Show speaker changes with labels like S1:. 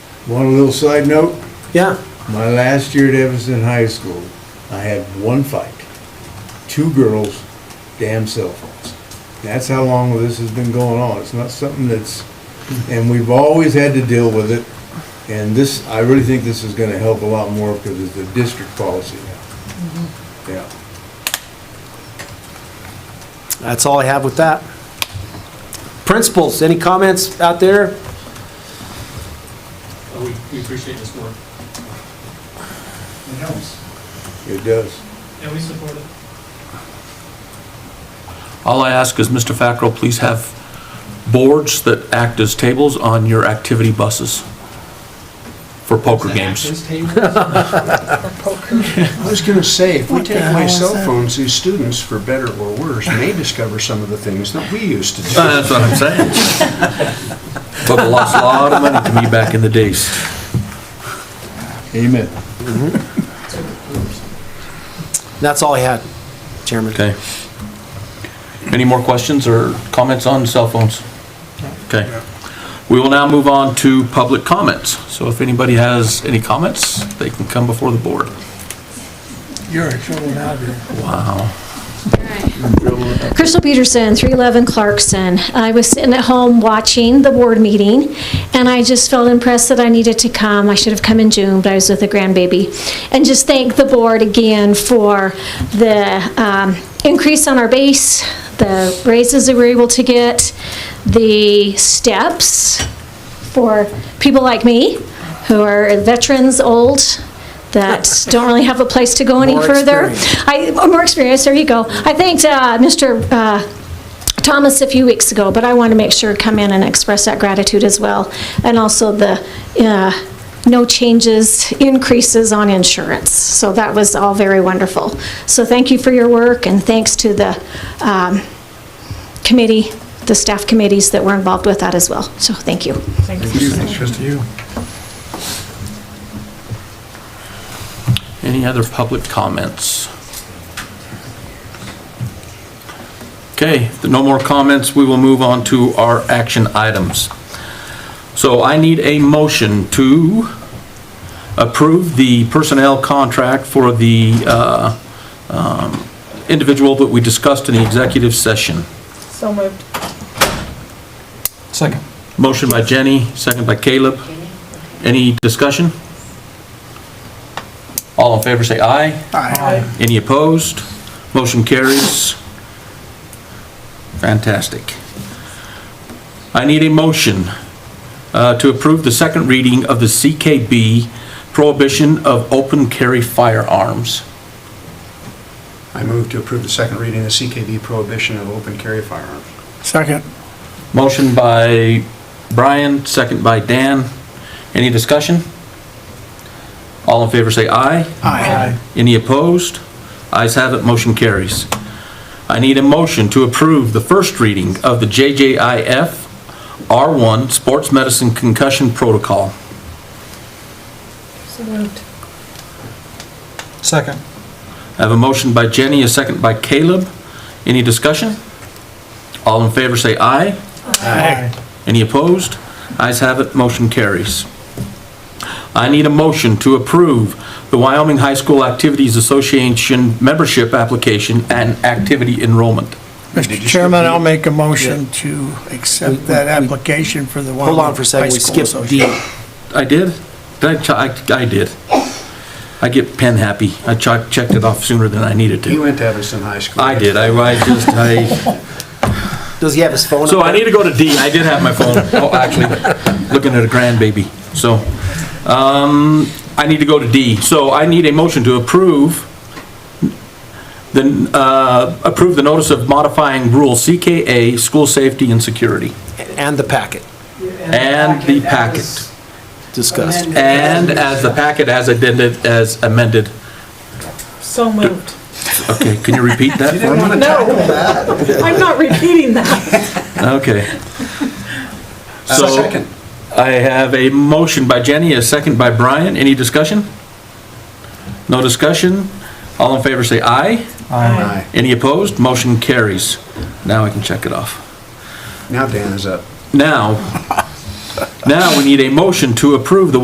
S1: One little side note,
S2: Yeah,
S1: my last year at Evanston High School, I had one fight. Two girls, damn cell phones. That's how long this has been going on. It's not something that's, and we've always had to deal with it. And this, I really think this is gonna help a lot more because it's a district policy now.
S3: Mm-hmm.
S1: Yeah.
S2: that's all I have with that. Principals, any comments out there?
S4: Uh, We we appreciate this work,
S3: It helps.
S1: It does.
S4: and we support it.
S5: All I ask is, Mr. Fackrell, please have boards that act as tables on your activity buses for poker games.
S4: This table,
S3: I was gonna say, if we
S6: What the
S3: take
S6: hell
S3: away
S6: is
S3: cell
S6: that?
S3: phones, these students, for better or worse, may discover some of the things that we used to do.
S5: Uh, That's what I'm saying. But I lost a lot of money to me back in the days.
S1: Amen.
S2: That's all I had, Chairman.
S5: Okay. Any more questions or comments on cell phones? Okay. We will now move on to public comments. So if anybody has any comments, they can come before the board.
S6: You're a trouble now, dude.
S5: Wow.
S7: Crystal Peterson, 311 Clarkson. I was sitting at home watching the board meeting, and I just felt impressed that I needed to come. I should have come in June, but I was with a grandbaby. And just thank the board again for the um, increase on our base, the raises that we were able to get, the steps for people like me, who are veterans, old, that don't really have a place to go any
S2: More
S7: further.
S2: experience.
S7: I, oh, more experience, there you go. I thanked uh, Mr. uh, Thomas a few weeks ago, but I want to make sure, come in and express that gratitude as well. And also the uh, no changes, increases on insurance. So that was all very wonderful. So thank you for your work, and thanks to the um, committee, the staff committees that were involved with that as well. So thank you.
S5: Any other public comments? Okay, if there are no more comments, we will move on to our action items. So I need a motion to approve the personnel contract for the uh, um, individual that we discussed in the executive session.
S8: So moved.
S6: Second.
S5: Motion by Jenny, second by Caleb. Any discussion? All in favor, say aye.
S6: Aye.
S5: Any opposed? Motion carries. Fantastic. I need a motion uh, to approve the second reading of the CKB prohibition of open carry firearms.
S3: I move to approve the second reading of the CKB prohibition of open carry firearms.
S6: Second.
S5: Motion by Brian, second by Dan. Any discussion? All in favor say aye.
S6: Aye.
S5: Any opposed? Ayes have it, motion carries. I need a motion to approve the first reading of the JJIF R1 Sports Medicine Concussion Protocol.
S8: So moved.
S6: Second.
S5: I have a motion by Jenny, a second by Caleb. Any discussion? All in favor say aye.
S6: Aye.
S5: Any opposed? Ayes have it, motion carries. I need a motion to approve the Wyoming High School Activities Association membership application and activity enrollment.
S6: Mr. Chairman, I'll make a motion to accept that application for the
S2: Hold on
S6: Wyoming
S2: for
S6: High
S2: a second, we
S6: School
S2: skipped D.
S6: Association.
S5: I did? Did I, ch- I, I did. I get pen happy. I ch- checked it off sooner than I needed
S3: You
S5: to.
S3: went to Evanston High School.
S5: I did, I, I just, I,
S2: Does he have his phone?
S5: so
S2: up
S5: I
S2: there?
S5: need to go to D. I did have my phone, oh, actually, looking at a grandbaby, so. Um, I need to go to D. So I need a motion to approve the, uh, approve the notice of modifying rule CKA, school safety and security,
S2: And the packet
S5: and the packet.
S2: discussed.
S5: And as the packet as amended, as amended.
S8: So moved.
S5: Okay, can you repeat that for me?
S8: No, I'm not repeating that.
S5: Okay. So,
S3: uh, Second.
S5: I have a motion by Jenny, a second by Brian. Any discussion? No discussion? All in favor say aye.
S3: Aye.
S5: Any opposed? Motion carries. Now I can check it off.
S3: Now Dan is up.
S5: Now, now we need a motion to approve the